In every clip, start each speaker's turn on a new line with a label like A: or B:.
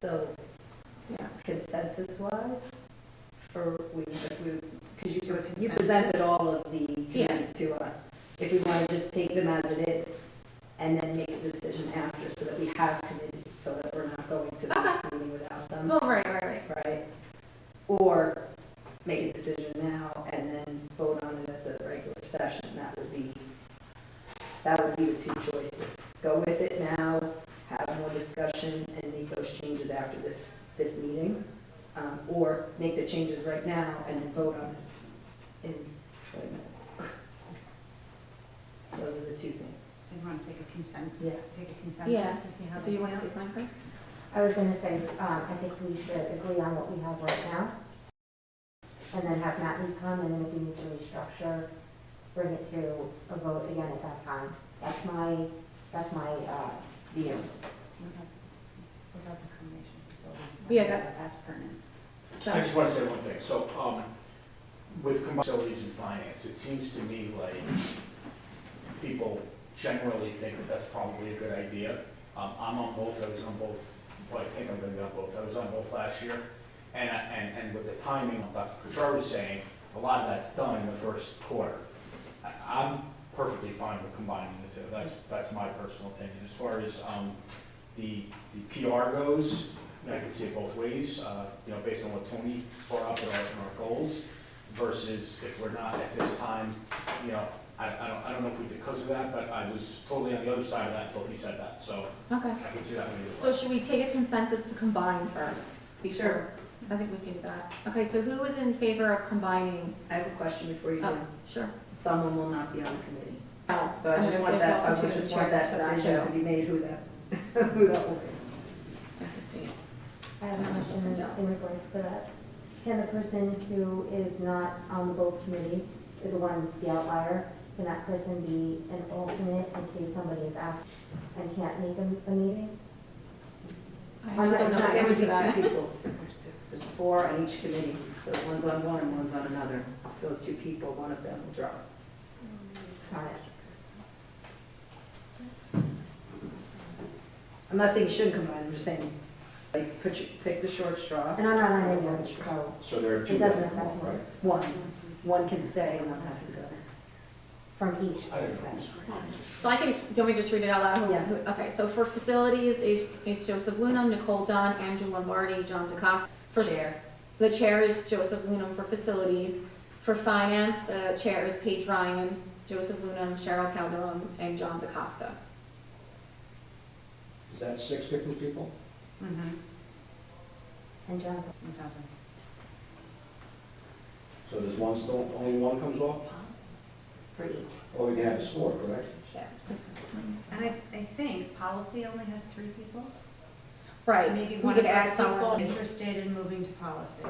A: So
B: Yeah.
A: consensus wise, for, we, if we, because
B: Do a
A: you, you
B: consensus.
A: presented all of the
B: Yeah.
A: committees to us. If we want to just take them as it is and then make a decision after so that we have committees, so that we're not going to the next meeting without them,
B: Oh, right, right, right.
A: right? Or make a decision now and then vote on it at the regular session, that would be, that would be the two choices. Go with it now, have more discussion and make those changes after this, this meeting, um, or make the changes right now and then vote on it in twenty minutes. Those are the two things,
C: So you want to take a consent,
A: yeah.
C: take a
B: Yeah.
C: consensus to see how
B: Do
C: they
B: you
C: go
B: want to say
C: out?
B: something first?
D: I was gonna say, um, I think we should agree on what we have right now, and then have Matt Lee come, and then if we need to restructure, bring it to a vote again at that time. That's my, that's my, uh, view.
C: Without- without the combination, so
B: Yeah, that's-
C: That's pertinent.
E: I
B: John?
E: just want to say one thing. So, um, with combined facilities and finance, it seems to me like people generally think that that's probably a good idea. Um, I'm on both, I was on both, well, I think I'm gonna be on both. I was on both last year. And, I- and, and with the timing, like Dr. Kuchar was saying, a lot of that's done in the first quarter. I- I'm perfectly fine with combining the two. That's, that's my personal opinion. As far as, um, the, the PR goes, and I can see it both ways, uh, you know, based on what Tony brought up in our, in our goals versus if we're not at this time, you know, I, I don't, I don't know if we did because of that, but I was totally on the other side of that until he said that, so
B: Okay.
E: I can see that maybe.
B: So should we take a consensus to combine first? before-
A: Sure.
B: I think we can do that. Okay, so who is in favor of combining?
A: I have a question before you
B: Oh,
A: do.
B: sure.
A: Someone will not be on the committee.
B: Oh,
A: So I just
B: and
A: want
B: there's
A: that,
B: also
A: I
B: two
A: would just want
B: chairs for
A: that decision to
B: too.
A: be made who that, who that will be.
B: I have to see it.
D: I have a question in regards to that. Can the person who is not on the both committees, the one, the outlier, can that person be an alternate in case somebody is out and can't make a, a meeting?
B: I
D: I'm
B: actually don't know
D: not-
B: the
A: It
D: it
B: answer
A: would
B: to
A: be two
B: that.
A: people. There's four on each committee, so one's on one and one's on another. Those two people, one of them will drop.
D: Got it.
A: I'm not saying you shouldn't combine, I'm just saying, like, put your, pick the short straw.
D: And I'm not on any of it, so
E: So there are
D: it doesn't affect me
A: One, one can stay and one has to go.
D: from each.
E: I don't know.
B: So I can, do not we just read it out loud? Who-
A: Yes.
B: who- Okay, so for facilities, is is Joseph Lunam, Nicole Dunn, Andrew Lombardi, John DeCosta. For
A: Chair.
B: The chair is Joseph Lunam for facilities. For finance, the chair is Paige Ryan, Joseph Lunam, Cheryl Calderon, and John DeCosta.
F: Is that six different people?
C: Mm-hmm.
D: And John's
C: It doesn't.
F: So there's one still, only one comes off?
A: For each.
F: Or we Oh, can have a score, correct?
C: And I, I think policy only has three people.
B: Right.
C: Maybe
B: so we
C: one
B: could
C: of
B: add
C: us people
B: someone.
C: interested in moving to policy.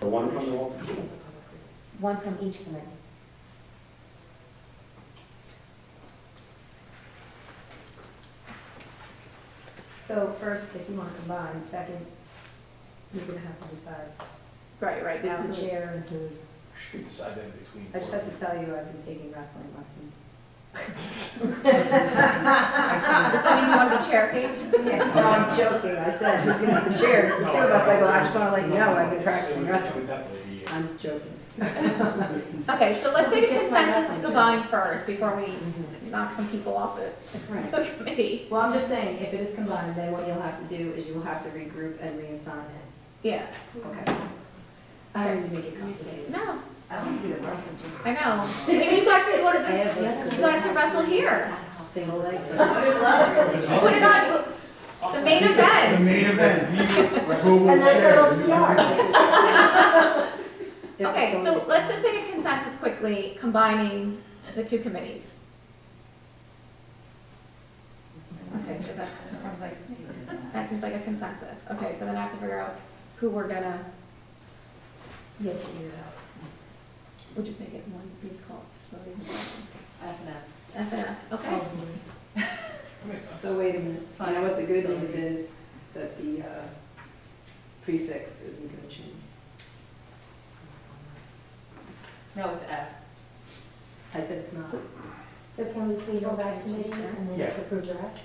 F: The one comes off, two.
D: One from each committee.
A: So first, if you want to combine, second, you're gonna have to decide
B: Right, right, now.
A: who's
B: who's-
A: the chair and who's.
E: Should we decide that between.
A: I just have to tell you, I've been taking wrestling lessons.
B: Does that mean you want to be chair, Paige?
A: No, I'm joking, I said, who's gonna be the chair, it's the two of us, I go, I just wanna let you know, I've been practicing
E: It
A: wrestling.
E: would definitely be. uh,
A: I'm joking.
B: Okay, so let's take a
A: That's my
B: consensus
A: wrestling joke.
B: to combine first before we knock some people off the
A: Right.
B: the committee.
A: Well, I'm just saying, if it is combined, then what you'll have to do is you will have to regroup and reassign it.
B: Yeah.
A: Okay. I don't need to make it complicated.
B: No,
A: I don't do the wrestling.
B: I know. Maybe you guys could go to
A: I have
B: this,
A: a-
B: you guys could wrestle here.
A: Single leg.
B: Put it on, the main
G: The
B: event.
G: main event, Google
D: And that's a
G: shares.
D: little jar.
B: Okay, so let's just take a consensus quickly, combining the two committees. Okay, so that's,
C: I was like,
B: that seems like a consensus. Okay, so then I have to figure out who we're gonna,
A: You have to figure it out.
B: we'll just make it one, please call facility. F and F, okay.
E: makes sense.
A: So wait a minute, you know what the good news is, that the uh, prefix isn't gonna change.
C: no, it's F.
A: I said it's not.
D: So can we table that committee and then
E: Yeah.
D: approve the rest?